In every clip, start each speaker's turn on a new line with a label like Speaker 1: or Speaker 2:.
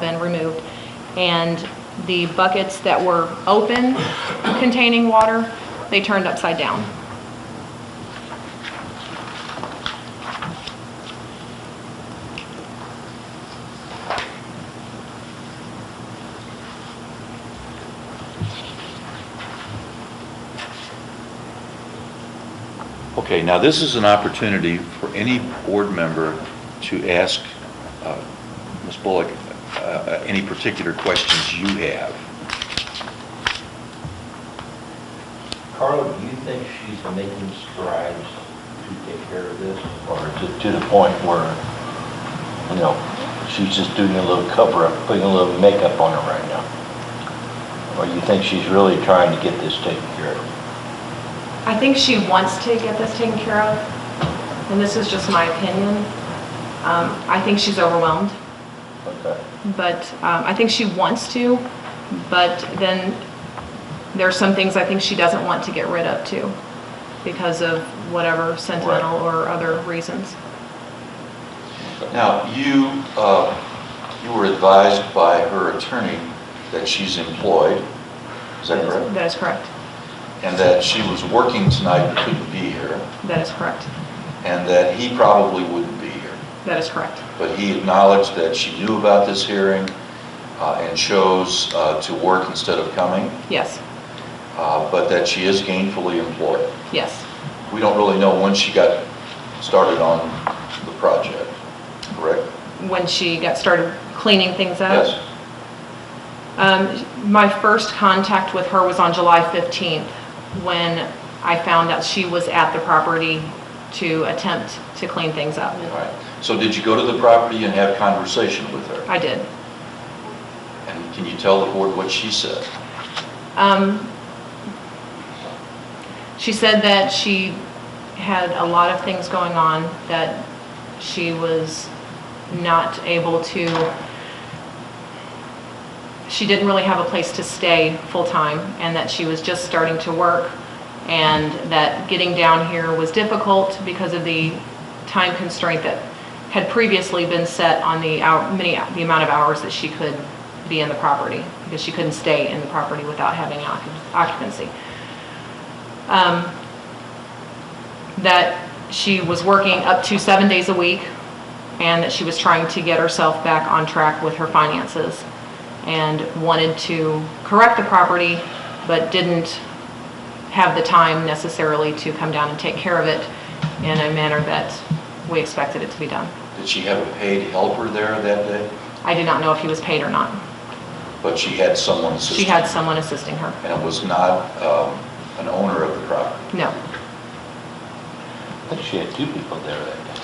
Speaker 1: been removed. And the buckets that were open containing water, they turned upside down.
Speaker 2: Okay, now this is an opportunity for any board member to ask uh, Ms. Bullock uh, uh, any particular questions you have.
Speaker 3: Carla, do you think she's making strides to take care of this?
Speaker 4: or to, to the point where, you know, she's just doing a little cover-up, putting a little makeup on her right now? Or you think she's really trying to get this taken care of?
Speaker 1: I think she wants to get this taken care of, and this is just my opinion. Um, I think she's overwhelmed,
Speaker 4: Okay.
Speaker 1: but um, I think she wants to, but then there's some things I think she doesn't want to get rid of too, because of whatever sentimental or other reasons.
Speaker 2: Now, you, uh, you were advised by her attorney that she's employed, is that correct?
Speaker 1: That is correct.
Speaker 2: And that she was working tonight but couldn't be here,
Speaker 1: That is correct.
Speaker 2: and that he probably wouldn't be here.
Speaker 1: That is correct.
Speaker 2: But he acknowledged that she knew about this hearing uh, and chose uh, to work instead of coming.
Speaker 1: Yes,
Speaker 2: uh, but that she is gainfully employed.
Speaker 1: yes.
Speaker 2: We don't really know when she got started on the project, correct?
Speaker 1: When she got started cleaning things up.
Speaker 2: Yes.
Speaker 1: Um, my first contact with her was on July 15th, when I found out she was at the property to attempt to clean things up.
Speaker 2: All right. So did you go to the property and have conversation with her?
Speaker 1: I did.
Speaker 2: And can you tell the board what she said?
Speaker 1: Um, she said that she had a lot of things going on, that she was not able to, she didn't really have a place to stay full-time, and that she was just starting to work, and that getting down here was difficult because of the time constraint that had previously been set on the hour, many, the amount of hours that she could be in the property, because she couldn't stay in the property without having occup- occupancy. Um, That she was working up to seven days a week, and that she was trying to get herself back on track with her finances, and wanted to correct the property, but didn't have the time necessarily to come down and take care of it in a manner that we expected it to be done.
Speaker 2: Did she have a paid helper there that day?
Speaker 1: I did not know if he was paid or not.
Speaker 2: But she had someone assisting?
Speaker 1: She had someone assisting her.
Speaker 2: And it was not um, an owner of the property?
Speaker 1: No.
Speaker 4: I think she had two people there that day.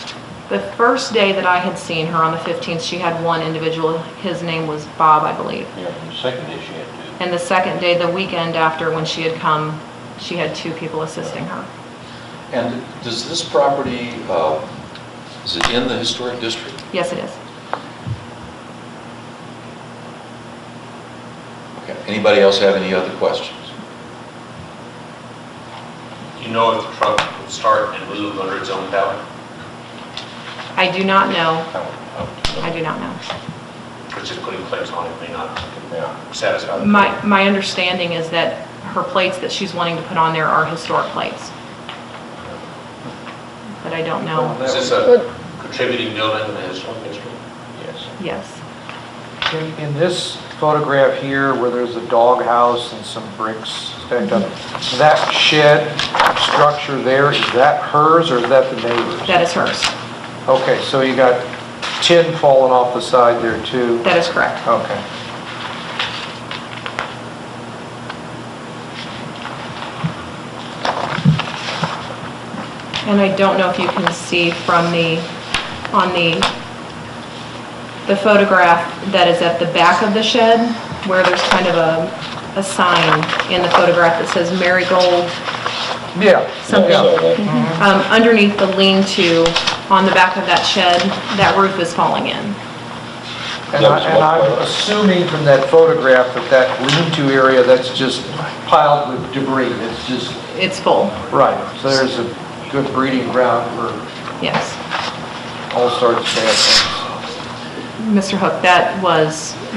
Speaker 1: The first day that I had seen her on the 15th, she had one individual. His name was Bob, I believe.
Speaker 4: Yeah, and the second day she had two.
Speaker 1: And the second day, the weekend after, when she had come, she had two people assisting her.
Speaker 2: And does this property, uh, is it in the historic district?
Speaker 1: Yes, it is.
Speaker 2: Okay. Anybody else have any other questions?
Speaker 5: You know if the truck would start and move under its own power?
Speaker 1: I do not know.
Speaker 4: I would- I
Speaker 1: I do not know.
Speaker 5: Which is putting plates on it may not
Speaker 4: would- Yeah.
Speaker 5: satisfy. the-
Speaker 1: My, my understanding is that her plates that she's wanting to put on there are historic plates. But I don't know.
Speaker 5: Is this a contributing building in the historic district?
Speaker 4: Yes.
Speaker 1: Yes.
Speaker 6: In in this photograph here, where there's a doghouse and some bricks stacked up, that shed structure there, is that hers or is that the neighbor's?
Speaker 1: That is hers.
Speaker 6: Okay, so you got tin falling off the side there too?
Speaker 1: That is correct.
Speaker 6: Okay.
Speaker 1: And I don't know if you can see from the, on the, the photograph that is at the back of the shed, where there's kind of a, a sign in the photograph that says marigold.
Speaker 6: Yeah.
Speaker 1: Something.
Speaker 6: yeah.
Speaker 1: Um, underneath the lean-to, on the back of that shed, that roof is falling in.
Speaker 6: And I- and I'm assuming from that photograph that that lean-to area, that's just piled with debris, it's just,
Speaker 1: It's full,
Speaker 6: right. So there's a good breeding ground for
Speaker 1: yes.
Speaker 6: all sorts of bad things.
Speaker 1: Mr. Hook, that was